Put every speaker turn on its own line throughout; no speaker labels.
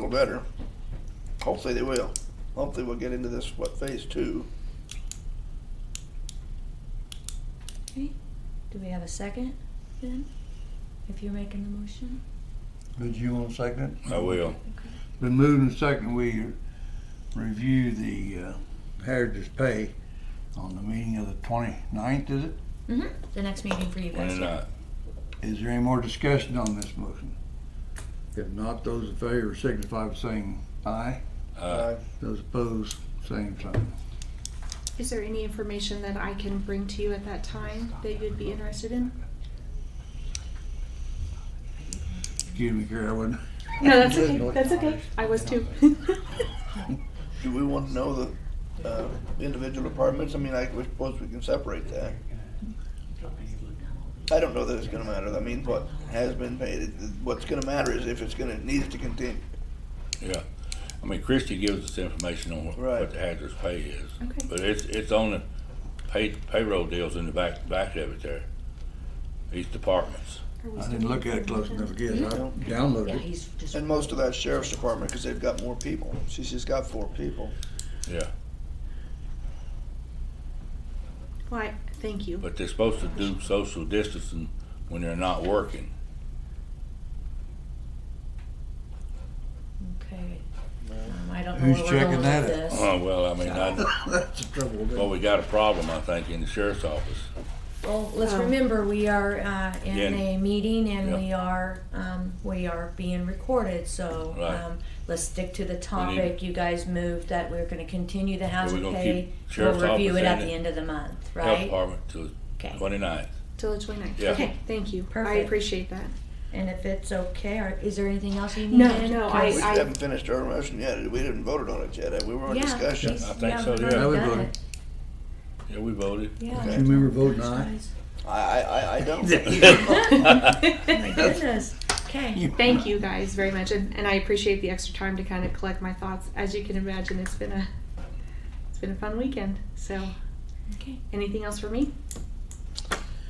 better. Hopefully they will. Hopefully we'll get into this, what, phase two.
Okay, do we have a second then? If you're making the motion?
Did you want to second it?
I will.
Been moved and second, we review the uh, heritage pay on the meeting of the 29th, is it?
Mm-hmm. The next meeting for you guys.
When
yeah.
not,
Is there any more discussion on this motion? If not, those in favor signify by saying aye.
uh,
Those opposed, same sign.
Is there any information that I can bring to you at that time that you'd be interested in?
Excuse me, Carrie, I wouldn't.
No, that's okay. That's okay. I was too.
Do we want to know the uh, individual departments? I mean, I we suppose we can separate that. I don't know that it's gonna matter. I mean, what has been paid, it- what's gonna matter is if it's gonna, it needs to continue.
yeah. I mean, Christie gives us information on what-
Right.
what the hazardous pay is.
Okay.
But it's, it's on the pay, payroll deals in the back, back of it there. These departments.
I didn't look at it close enough again. I
Yeah,
downloaded it.
he's just.
And most of that sheriff's department, because they've got more people. She's just got four people.
Yeah.
Why, thank you.
But they're supposed to do social distancing when they're not working.
Okay. Um, I don't know
Who's
where we're going
checking
with
that
this.
Oh, well, I mean, I,
That's the trouble. with it.
well, we got a problem, I think, in the sheriff's office.
Well, let's
Oh.
remember, we are, uh, in
Yeah.
a meeting and
Yeah.
we are, um, we are being recorded, so,
Right.
um, let's stick to the topic. You guys moved that we're gonna continue the hazard
gonna
pay.
keep
We'll
sheriff's
review
office
it at
and
the
the
end of the month,
Health
right?
Department to
Okay.
twenty-ninth.
Till the 29th.
Yeah.
Okay, thank you. I
Perfect.
appreciate that.
And if it's okay, or is there anything else you need?
No, no,
We
I-
haven't finished our motion yet. We didn't voted on it yet. We were in
Yeah,
discussion.
he's-
I think
yeah,
so,
we've
yeah.
already
I would
done
vote.
it.
Yeah, we voted.
Yeah.
Do
Okay.
you remember voting aye?
Guys.
I, I, I- I don't.
Oh my goodness, okay.
Thank you guys very much, and, and I appreciate the extra time to kind of collect my thoughts. As you can imagine, it's been a it's been a fun weekend. So,
Okay.
anything else for me?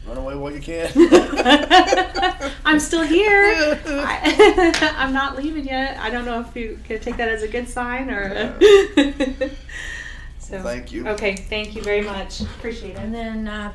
Run away while you can.
I'm still here. I, I'm not leaving yet. I don't know if you can take that as a good sign or. a- so
Thank you.
Okay, thank you very much. Appreciate
And then uh,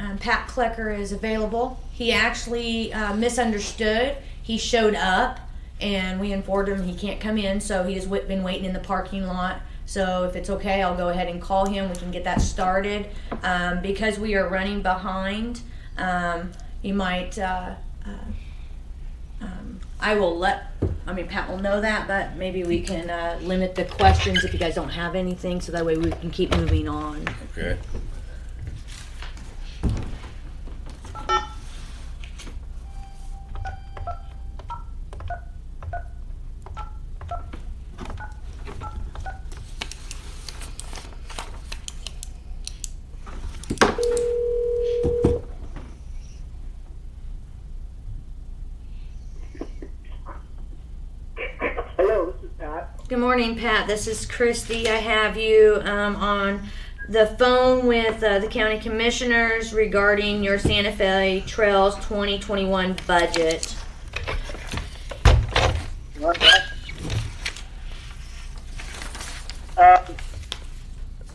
um, Pat Klecker is available. He actually uh, misunderstood. He showed up, and we informed him he can't come in, so he has wait- been waiting in the parking lot. So if it's okay, I'll go ahead and call him. We can get that started um, because we are running behind. Um, you might. Uh, uh, um, I will let, I mean, Pat will know that, but maybe we can uh, limit the questions if you guys don't have anything, so that way we can keep moving on.
Okay.
Hello, this is Pat.
Good morning, Pat. This is Christy. I have you um, on the phone with uh, the county commissioners regarding your Santa Fe Trails 2021 budget.
What's that? Um,
I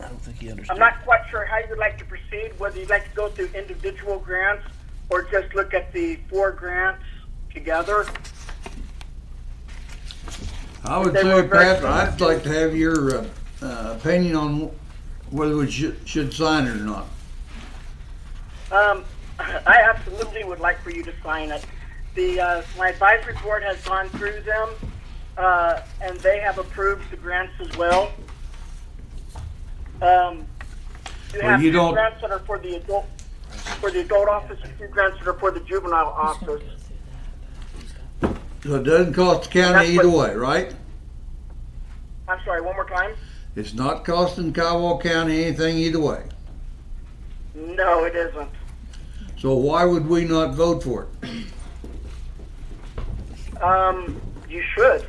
don't think he understood.
I'm not quite sure how you'd like to proceed, whether you'd like to go through individual grants or just look at the four grants together.
I would
They were
say,
very
Pat,
strong.
I'd like to have your uh, uh, opinion on whether we should, should sign it or not.
Um, I absolutely would like for you to sign it. The, uh, my advisory board has gone through them, uh, and they have approved the grants as well. Um, you
Well,
have
you
two
don't-
grants that are for the adult, for the adult office, and two grants that are for the juvenile office.
So it doesn't cost the county
That's what-
either way, right?
I'm sorry, one more time?
It's not costing Kiowa County anything either way.
No, it isn't.
So why would we not vote for it?
Um, you should.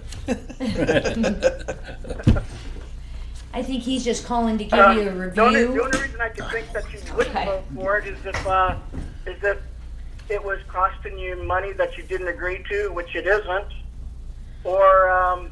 I think he's just calling to give
Uh,
you a
The only, the
review.
only reason I could think that you wouldn't
Okay.
vote for it is if, uh, is if it was costing you money that you didn't agree to, which it isn't, or um,